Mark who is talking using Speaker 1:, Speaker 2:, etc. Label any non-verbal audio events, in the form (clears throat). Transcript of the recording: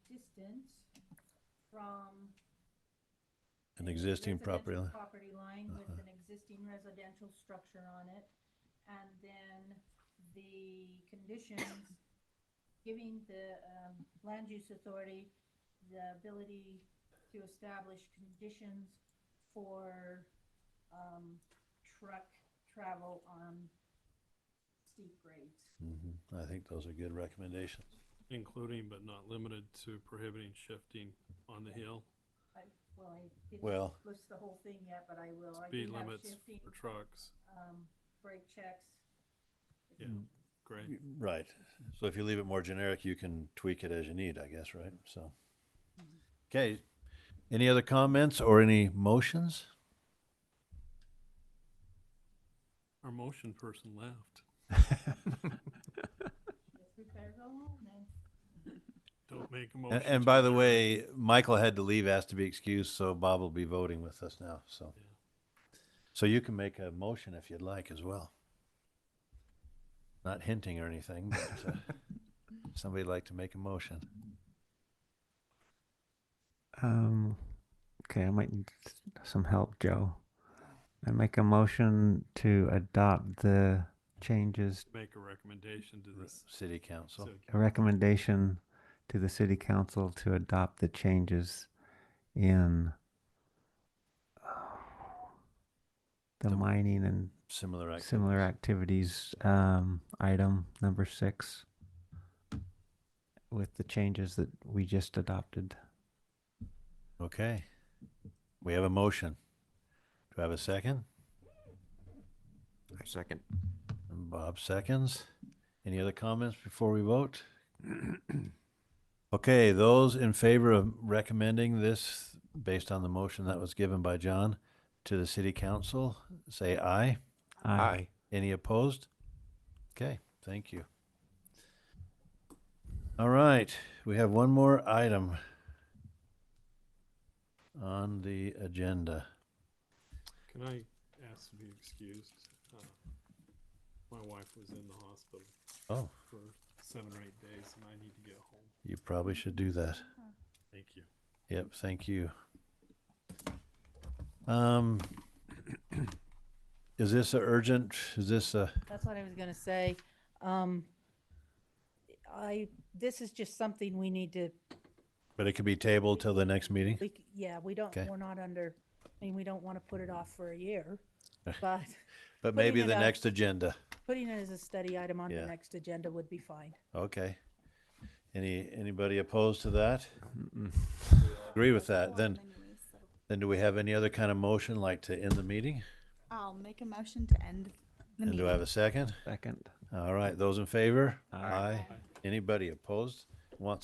Speaker 1: distance from.
Speaker 2: An existing property Uh-huh.
Speaker 1: residential
Speaker 2: line?
Speaker 1: Property line with an existing residential structure on it. And then the conditions giving the um, land use authority the ability to establish conditions for um, truck travel on steep grades.
Speaker 2: Mhm. I think those are good recommendations.
Speaker 3: including but not limited to prohibiting shifting on the hill,
Speaker 1: I- Well, I didn't
Speaker 2: Well-
Speaker 1: list the whole thing yet, but I will. I
Speaker 3: speed
Speaker 1: do have
Speaker 3: limits
Speaker 1: shifting,
Speaker 3: for trucks.
Speaker 1: um, Brake checks.
Speaker 3: Yeah, great.
Speaker 2: Y- Right. So if you leave it more generic, you can tweak it as you need, I guess, right? So. Okay. Any other comments or any motions?
Speaker 3: Our motion person left.
Speaker 1: Yes, we better go home then.
Speaker 3: Don't make a
Speaker 2: A-
Speaker 3: motion.
Speaker 2: And, by the way, Michael had to leave, asked to be excused, so Bob will be voting with us now, so.
Speaker 3: Yeah.
Speaker 2: So you can make a motion if you'd like as well. Not hinting or anything, but uh,
Speaker 3: (laughs)
Speaker 2: somebody'd like to make a motion.
Speaker 4: Um, okay, I might need s- some help, Joe. I make a motion to adopt the changes,
Speaker 3: Make a recommendation to
Speaker 2: R-
Speaker 3: this.
Speaker 2: City council.
Speaker 3: city
Speaker 4: a recommendation to the city council to adopt the changes in the
Speaker 2: The-
Speaker 4: mining and
Speaker 2: Similar activity.
Speaker 4: similar activities, um, item number six with the changes that we just adopted.
Speaker 2: Okay. We have a motion. Do I have a second?
Speaker 5: I second.
Speaker 2: And Bob seconds. Any other comments before we vote? (clears throat) Okay, those in favor of recommending this based on the motion that was given by John to the city council, say aye.
Speaker 4: Aye.
Speaker 2: Any opposed? Okay, thank you. All right, we have one more item on the agenda.
Speaker 3: Can I ask to be excused? Uh, My wife was in the hospital
Speaker 2: Oh,
Speaker 3: for seven or eight days and I need to get home.
Speaker 2: you probably should do that.
Speaker 3: Thank you.
Speaker 2: Yep, thank you. Um, is this a urgent? Is this a,
Speaker 6: That's what I was gonna say. Um, I, this is just something we need to,
Speaker 2: but it could be tabled till the next meeting?
Speaker 6: we, c- yeah, we don't,
Speaker 2: Okay.
Speaker 6: we're not under, I mean, we don't want to put it off for
Speaker 2: (laughs)
Speaker 6: a year. But
Speaker 2: But maybe
Speaker 6: it
Speaker 2: the
Speaker 6: out.
Speaker 2: next agenda.
Speaker 6: putting it as a study item on
Speaker 2: Yeah.
Speaker 6: the next agenda would be fine.
Speaker 2: Okay. Any, anybody opposed to that? Agree with
Speaker 7: Uh,
Speaker 2: that? Then,
Speaker 7: Anyway, so
Speaker 2: then do we have any other kind of motion like to end the meeting?
Speaker 7: I'll make a motion to end the
Speaker 2: And
Speaker 7: meeting.
Speaker 2: do I have a second?
Speaker 4: Second.
Speaker 2: All right, those in favor?
Speaker 4: Aye.
Speaker 2: Anybody opposed?